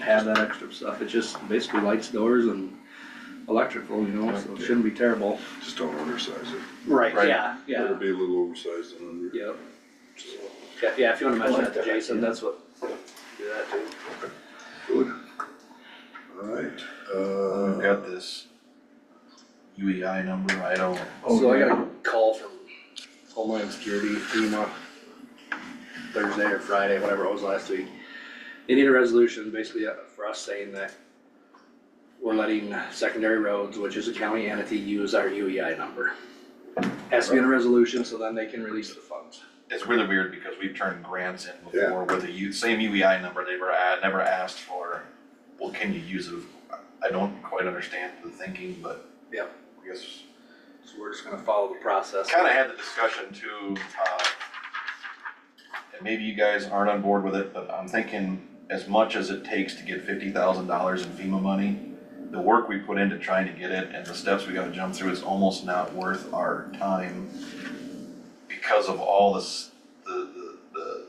have that extra stuff, it's just basically lights, doors and electrical, you know, so it shouldn't be terrible. Just don't oversize it. Right, Right. yeah, It'll yeah, be a little oversized and under. yep. so, Yeah, yeah, if you wanna mention like that to that Jason, idea. that's what, do that too. Good. Alright, uh. We've got this UEI number, I don't. So I got a call from Homeland Security, FEMA, Thursday or Friday, whatever it was last week. They need a resolution basically uh, for us saying that we're letting secondary roads, which is a county entity, use our UEI number. Has to be in a resolution, so then they can release the funds. It's really weird because we've turned grants in before with the U, same UEI number, they were, a- never asked for, well, can you use it? I don't quite understand the thinking, but. yeah, Yep. I guess, So we're just gonna follow the process. kinda had the discussion too, uh, and maybe you guys aren't on board with it, but I'm thinking as much as it takes to get fifty thousand dollars in FEMA money, the work we put into trying to get it and the steps we gotta jump through is almost not worth our time because of all this, the, the, the,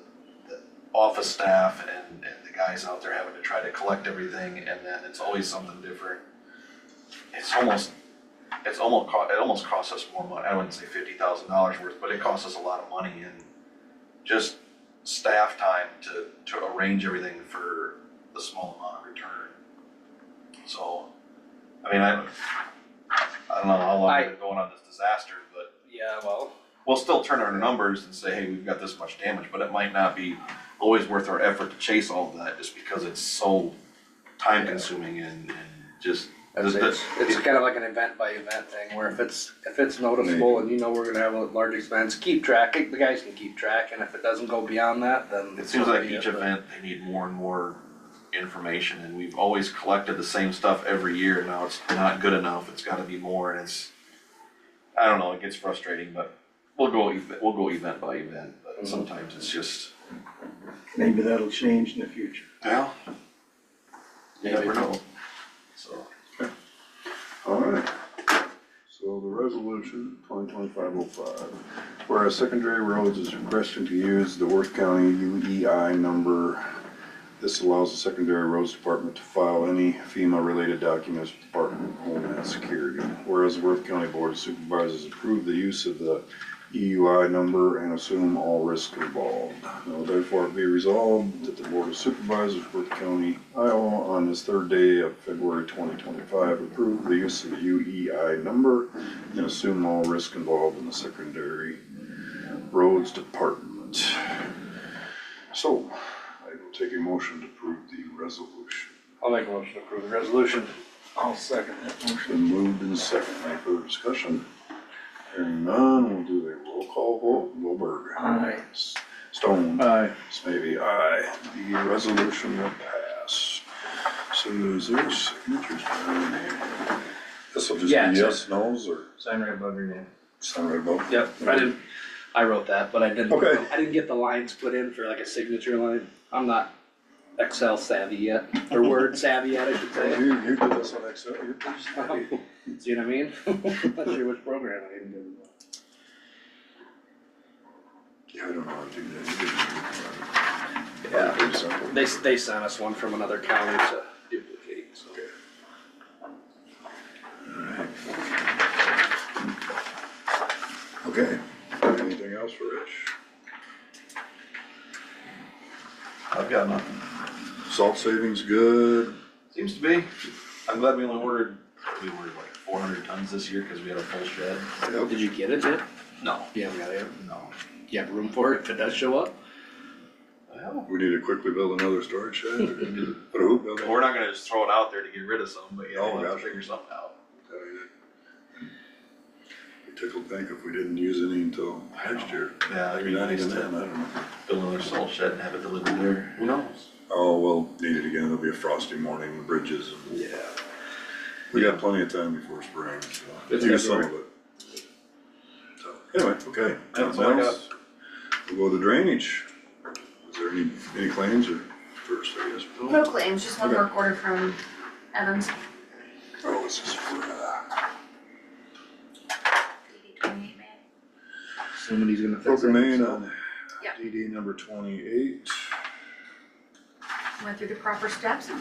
the office staff and, and the guys out there having to try to collect everything, and then it's always something different. It's almost, it's almost, co- it almost costs us more money, I wouldn't say fifty thousand dollars worth, but it costs us a lot of money and just staff time to, to arrange everything for the small amount of return. So, I mean, I, I don't know how long I- we've been going on this disaster, but Yeah, well, we'll still turn our numbers and say, hey, we've got this much damage, but it might not be always worth our effort to chase all of that, just because it's so time consuming and, and just. It's, the- the- it's, it's kind of like an event by event thing, where if it's, if it's noticeable and you know we're gonna have a large expense, keep track, the guys can keep track, and if it doesn't go beyond that, then. It seems like so be each it, but- event, they need more and more information, and we've always collected the same stuff every year, now it's not good enough, it's gotta be more, and it's. I don't know, it gets frustrating, but we'll go, ev- we'll go event by event, but sometimes it's just, Maybe that'll change in the future. well. You never know, so. Alright, so the resolution, twenty twenty-five oh five, whereas secondary roads is requesting to use the Worth County UEI number. This allows the secondary roads department to file any FEMA-related documents with Department of Homeland Security. Whereas the Worth County Board of Supervisors approved the use of the EUI E number and assume all risks involved. Now therefore be resolved that the Board of Supervisors of Worth County, Iowa, on this third day of February twenty twenty-five, approve the use of the UEI number and assume all risk involved in the secondary roads department. So, I will take a motion to approve the resolution. I'll make a motion to approve the resolution. I'll second that motion. Motion moved and second, any further discussion? Hearing none, we'll do a roll call vote, Wilbur. Aye. Stone. Aye. Maybe aye. The resolution will pass. So is there signatures down there? This'll just be Yeah, it's- yes, no's, or Sign right above your name. sign right above? Yep, I didn't, I wrote that, but I didn't, Okay. I didn't get the lines put in for like a signature line. I'm not Excel savvy yet, or Word savvy yet, I should You, say. you did this on Excel, you're pretty savvy. See what I mean? Not sure which program I even did. it on. Yeah, I don't know how to do that. You did it. Yeah. Pretty simple. They, they sent us one from another county to duplicate, so. Okay, anything else for Rich? I've got nothing. Salt savings good, Seems to be. I'm glad we only ordered, we ordered like four hundred tons this year because we had a full shed. yep, Did you get it yet? No. You haven't got it yet? No. You have room for it if it does show up? Well, we need to quickly build another storage shed, or put a hoop building. we're not gonna just throw it out there to get rid of some, but yeah, Oh, we'll have to gotcha. figure something out. We tickled pink if we didn't use any until next year. Yeah, it'd Maybe be not nice even then, I to don't know. build another salt shed and have it delivered there. Who knows? Oh, we'll need it again, it'll be a frosty morning, the bridges, and Yeah. we got plenty of time before spring, so. It's Use some of it. So, anyway, okay, That's nothing all I got. else? We'll go to drainage. Is there any, any claims or first, I guess? Bill? No claims, just one work order from Evans, Oh, this is for, uh, DD twenty-eight man. Assuming he's gonna fix it. broken main so. on Yeah. DD number twenty-eight. Went through the proper steps and